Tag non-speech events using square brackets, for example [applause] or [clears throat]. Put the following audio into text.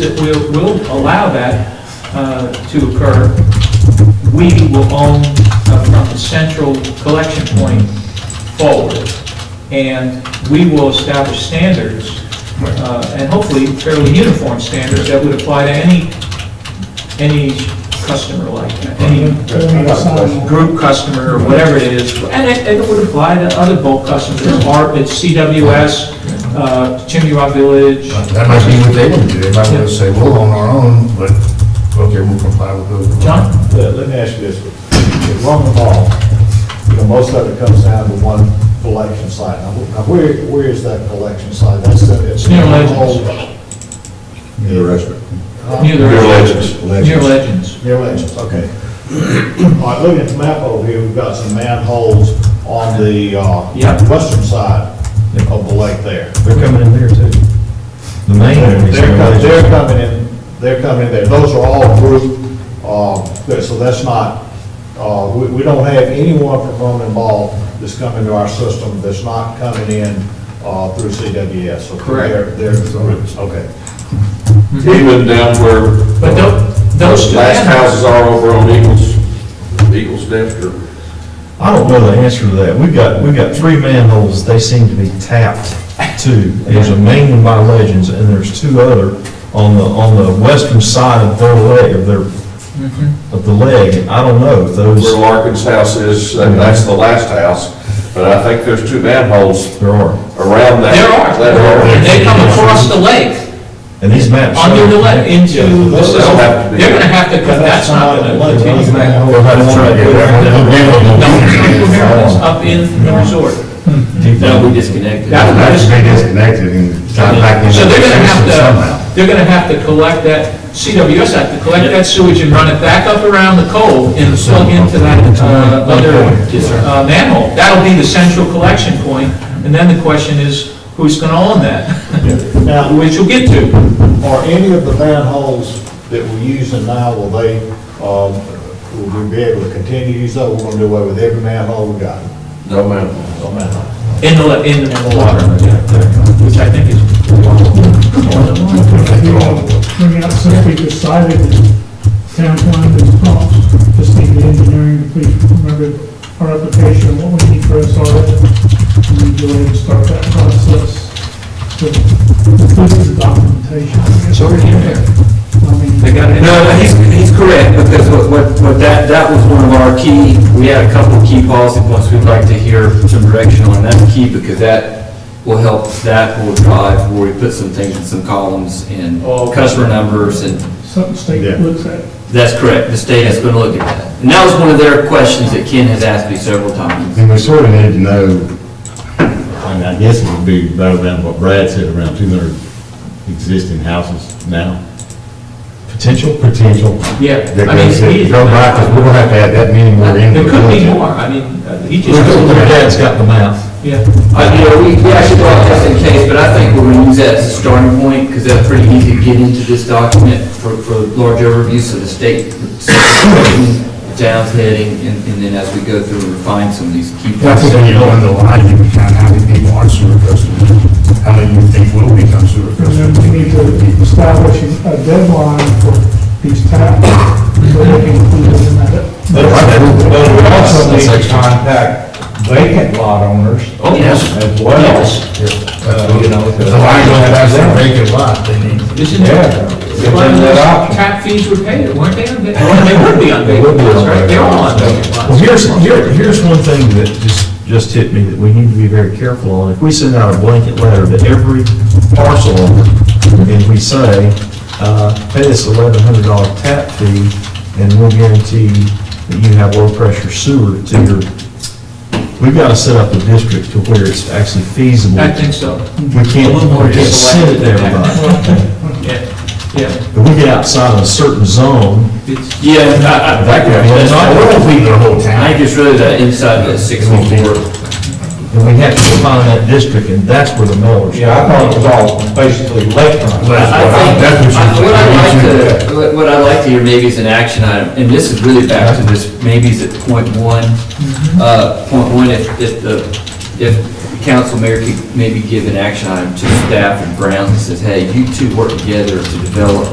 that will, will allow that uh, to occur, we will own uh, from the central collection point forward. And we will establish standards, uh, and hopefully fairly uniform standards that would apply to any, any customer like that, any group customer or whatever it is, and it, and it would apply to other bulk customers, ARP, it's CWS, uh, Chimney Rock Village, That might be what they would do, they might just say, we'll own our own, but, okay, we'll comply with those. John? Let let me ask you this, If long the ball, you know, most of it comes down to one collection site. Now, wh- now, where, where is that collection site? That's the, it's. Near Legends. Legends. Near restaurant. Near the Near Legends. Legends. Near Legends. Near Legends, okay. [clears throat] All right, looking at the map over here, we've got some manholes on the, uh, Yep. western side of the lake there. They're coming in there too. The main one is They're coming, there. they're coming in, they're coming in there, those are all group, uh, there- so that's not, uh, we, we don't have anyone from Roman Ball that's coming to our system that's not coming in, uh, through CWS, so Correct. they're, they're groups, okay. Even down where But tho- those two last manholes, houses are over on Eagles, Eagles Nest or I don't know the answer to that. We've got, we've got three manholes, they seem to be tapped too. There's a main one by Legends, and there's two other on the, on the western side of their leg, of their, of the leg. I don't know if where those, Larkin's house is, and that's the last house. But I think there's two manholes there are. around that. there are, that and they come across the lake, And these maps. show- under the lake, into the Those don't system. have to be- They're gonna have to, cut- that's not gonna continue. We'll have to try to get No, that Triangle one. Maryland's up in the resort. Deep down. we disconnected. That- that is- They disconnected and tied back into So the they're gonna have system somehow. to, they're gonna have to collect that, CWS have to collect that sewage and run it back up around the cove and plug into that uh, other uh, manhole. That'll be the central collection point, and then the question is, who's gonna own that? [laughs] Now, Which we'll get to. are any of the manholes that we're using now, will they, um, will we be able to continue to use those? We're gonna do away with every manhole we got, No manhole. no manhole. In the, le- in the water, which I think is, We all bring out, since we decided that town plan is cost, just need the engineering, to please remember our application, what we need for SR. And we go ahead and start that process with with the documentation. It's already in there. I mean. they got it. No, but he's, he's correct, because what, what, what that, that was one of our key, we had a couple of key policy points we'd like to hear some direction on, that's key, because that will help, that will drive where we put some things in some columns and customer numbers, and Something state looks at. that's correct, the state is gonna look at that. And that was one of their questions that Ken has asked me several times. And we sort of need to know, I mean, I guess it would be right around what Brad said, around 200 existing houses now. Potential? Potential. yeah. That I mean, goes in. he- Go by, 'cause we're going to have to add that many more in. There could be more, I mean, uh, he just, Look at Dad's got the mouth. yeah. I, you know, we, we actually brought this in case, but I think we're gonna use that as a starting point, because that's pretty easy to get into this document for, for large overviews of the state, town's heading, and, and then as we go through and refine some of these key That's points. when you go into line, you can count how many people are sewer customers, how many you think will become sewer And then customers. we need to establish a deadline for these taps, so they can include it in that. But but we also need to contact vacant lot owners Oh, yes. as well. Uh, You know, If the line to- goes past that vacant lot, they need, Isn't Yeah. it? Well, Give them that option. Tap fees were paid, weren't they? on va- Well, They would be on would vacant be on lots, right? vacant They're all on lots. vacant Well, lots. here's, here- here's one thing that just, just hit me that we need to be very careful on. If we send out a blanket letter to every parcel owner, and we say, uh, pay this eleven hundred dollar tap fee, and we'll guarantee that you have low pressure sewer to your, we've got to set up a district to where it's actually feasible. I think so. We can't, we can't send it to everybody. Yeah, yeah. If we get outside of a certain zone, It's- Yeah, I, I, that could be, I another won't leave the whole town. I think it's really that inside the sixty-four, And we have to define that district, and that's where the millers. Yeah, I thought it was all basically lakefront. I think, I- what I'd like to, what- what I'd like to hear maybe is an action item, and this is really back to this, maybe is at point one, uh, point one, if, if the, if the council mayor could maybe give an action item to staff and Brown that says, hey, you two work together to develop